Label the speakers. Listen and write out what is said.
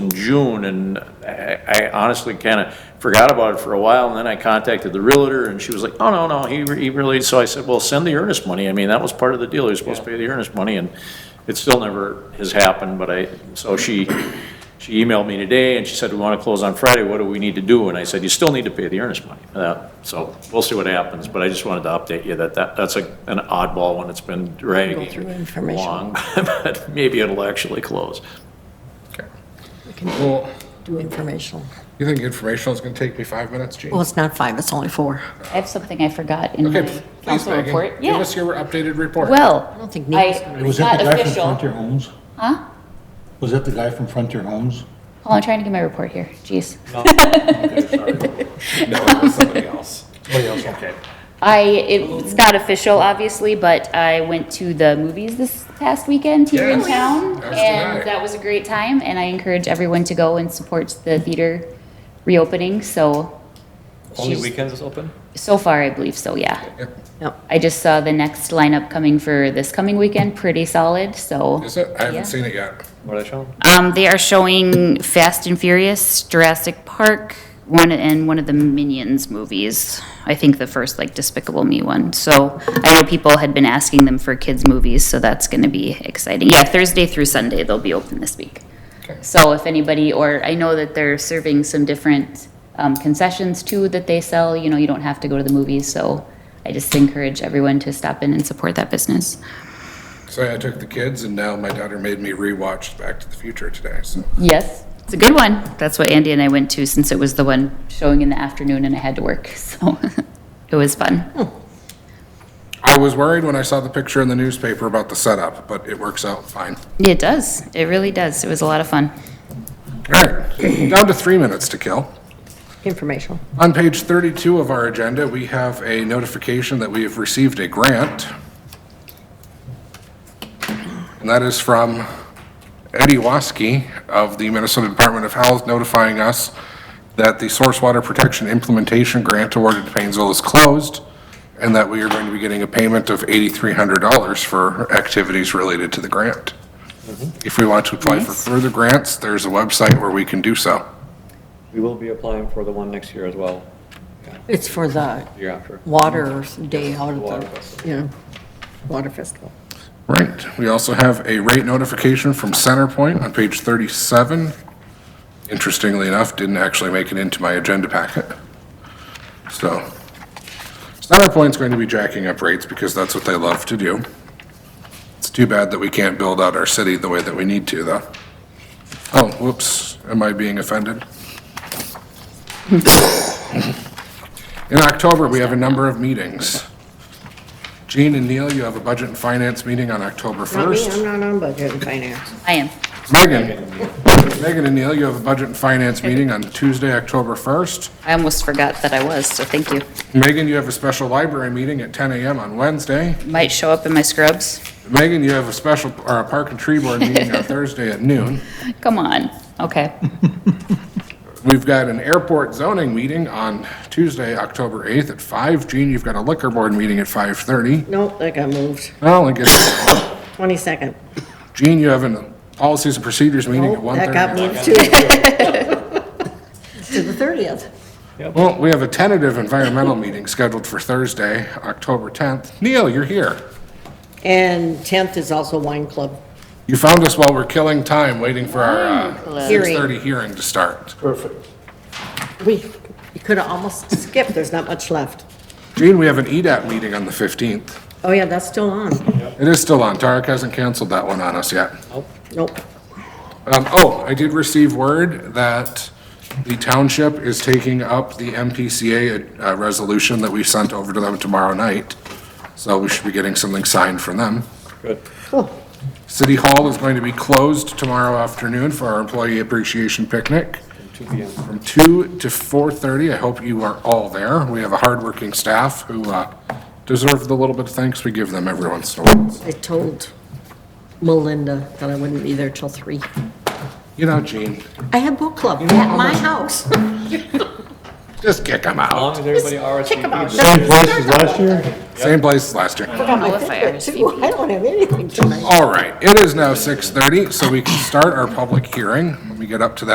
Speaker 1: June, and I I honestly kind of forgot about it for a while, and then I contacted the realtor, and she was like, oh, no, no, he re- he really, so I said, well, send the earnest money, I mean, that was part of the deal, you're supposed to pay the earnest money, and it still never has happened, but I, so she, she emailed me today, and she said, we want to close on Friday, what do we need to do? And I said, you still need to pay the earnest money, Uh, so we'll see what happens, but I just wanted to update you that that, that's a an oddball one, it's been dragging
Speaker 2: through information.
Speaker 1: long, but maybe it'll actually close.
Speaker 2: We can
Speaker 3: Well,
Speaker 2: do informational.
Speaker 3: you think informational is going to take me five minutes, Gene?
Speaker 2: Well, it's not five, it's only four.
Speaker 4: I have something I forgot in
Speaker 3: Okay,
Speaker 4: my
Speaker 3: please,
Speaker 4: council
Speaker 3: Megan,
Speaker 4: report.
Speaker 3: give
Speaker 4: Yeah,
Speaker 3: us your updated report.
Speaker 4: well,
Speaker 2: I don't think
Speaker 4: I,
Speaker 2: Nina's gonna-
Speaker 4: it's not official.
Speaker 5: Homes?
Speaker 4: Huh?
Speaker 5: Was that the guy from Frontier Homes?
Speaker 4: Hold on, I'm trying to get my report here, jeez.
Speaker 3: No, it was somebody else.
Speaker 5: Somebody else, okay.
Speaker 4: I, it's not official, obviously, but I went to the movies this past weekend here in
Speaker 3: Yes.
Speaker 4: town.
Speaker 3: As did I.
Speaker 4: And that was a great time, and I encourage everyone to go and support the theater reopening, so.
Speaker 6: Only
Speaker 4: she's-
Speaker 6: weekends is open?
Speaker 4: So far, I believe so, yeah.
Speaker 3: Yep.
Speaker 2: No,
Speaker 4: I just saw the next lineup coming for this coming weekend, pretty solid, so.
Speaker 3: Is it? I
Speaker 4: Yeah.
Speaker 3: haven't seen it yet.
Speaker 6: What are they showing?
Speaker 4: Um, they are showing Fast and Furious, Jurassic Park, one, and one of the Minions movies. I think the first, like Despicable Me one. So I know people had been asking them for kids' movies, so that's gonna be exciting. Yeah, Thursday through Sunday, they'll be open this week.
Speaker 3: Okay.
Speaker 4: So if anybody, or I know that they're serving some different, um, concessions too that they sell, you know, you don't have to go to the movies, so I just encourage everyone to stop in and support that business.
Speaker 3: So I took the kids and now my daughter made me rewatch Back to the Future today, so.
Speaker 4: Yes, it's a good one. That's what Andy and I went to since it was the one showing in the afternoon and I had to work. So it was fun.
Speaker 3: I was worried when I saw the picture in the newspaper about the setup, but it works out fine.
Speaker 4: It does. It really does. It was a lot of fun.
Speaker 3: All right, down to three minutes to kill.
Speaker 2: informational.
Speaker 3: On page 32 of our agenda, we have a notification that we have received a grant. And that is from Eddie Waskey of the Minnesota Department of Health notifying us that the Source Water Protection Implementation Grant awarded to Painesville is closed and that we are going to be getting a payment of $8,300 for activities related to the grant. If we want to apply for
Speaker 4: Nice.
Speaker 3: further grants, there's a website where we can do so.
Speaker 6: We will be applying for the one next year as well,
Speaker 2: It's for the
Speaker 6: year after.
Speaker 2: water day out of
Speaker 6: Water
Speaker 2: the,
Speaker 6: festival.
Speaker 2: you know, water festival.
Speaker 3: Right, we also have a rate notification from Centerpoint on page 37. Interestingly enough, didn't actually make it into my agenda packet. So, Centerpoint's going to be jacking up rates because that's what they love to do. It's too bad that we can't build out our city the way that we need to, though. Oh, whoops, am I being offended? In October, we have a number of meetings. Gene and Neil, you have a budget and finance meeting on October 1st.
Speaker 7: Not me, I'm not on budget and finance.
Speaker 4: I am.
Speaker 3: Megan. Megan and Neil, you have a budget and finance meeting on Tuesday, October 1st.
Speaker 4: I almost forgot that I was, so thank you.
Speaker 3: Megan, you have a special library meeting at 10 AM on Wednesday.
Speaker 4: Might show up in my scrubs.
Speaker 3: Megan, you have a special, or a park and tree board meeting on Thursday at noon.
Speaker 4: Come on. Okay.
Speaker 3: We've got an airport zoning meeting on Tuesday, October 8th at 5. Gene, you've got a liquor board meeting at 5:30.
Speaker 7: Nope, that got moved.
Speaker 3: Well, I guess,
Speaker 7: 22nd.
Speaker 3: Gene, you have a policies and procedures meeting at
Speaker 7: Nope, Oh, that
Speaker 3: 1:30.
Speaker 7: got moved too.
Speaker 2: To the 30th.
Speaker 3: Well, we have a tentative environmental meeting scheduled for Thursday, October 10th. Neil, you're here.
Speaker 7: And 10th is also wine club.
Speaker 3: You found us while we're killing time, waiting for our uh,
Speaker 4: Hearing.
Speaker 3: 6:30 hearing to start.
Speaker 7: We, you could have almost skipped, there's not much left.
Speaker 3: Gene, we have an E EDAP meeting on the 15th.
Speaker 7: Oh yeah, that's still on.
Speaker 3: It is still on. Tarek hasn't canceled that one on us yet.
Speaker 7: Nope.
Speaker 3: Um, Oh, I did receive word that the township is taking up the MPCA uh, resolution that we sent over to them tomorrow night, so we should be getting something signed from them.
Speaker 6: Good.
Speaker 3: City Hall is going to be closed tomorrow afternoon for our employee appreciation picnic.
Speaker 6: Two P M.
Speaker 3: from 2 to 4:30. I hope you are all there. We have a hardworking staff who uh, deserve the little bit of thanks we give them every once in a while.
Speaker 7: I told Melinda that I wouldn't be there till 3.
Speaker 3: You know, Gene,
Speaker 7: I had book club
Speaker 3: know
Speaker 7: at
Speaker 3: how
Speaker 7: my
Speaker 3: much-
Speaker 7: house.
Speaker 3: just kick them
Speaker 6: As long
Speaker 3: out.
Speaker 6: as everybody RSVPs.
Speaker 5: Same place as last year?
Speaker 3: Same place as last year.
Speaker 7: I
Speaker 4: know if I RSVP'd.
Speaker 7: I don't have anything tonight.
Speaker 3: All right, it is now 6:30, so we can start our public hearing. Let me get up to that.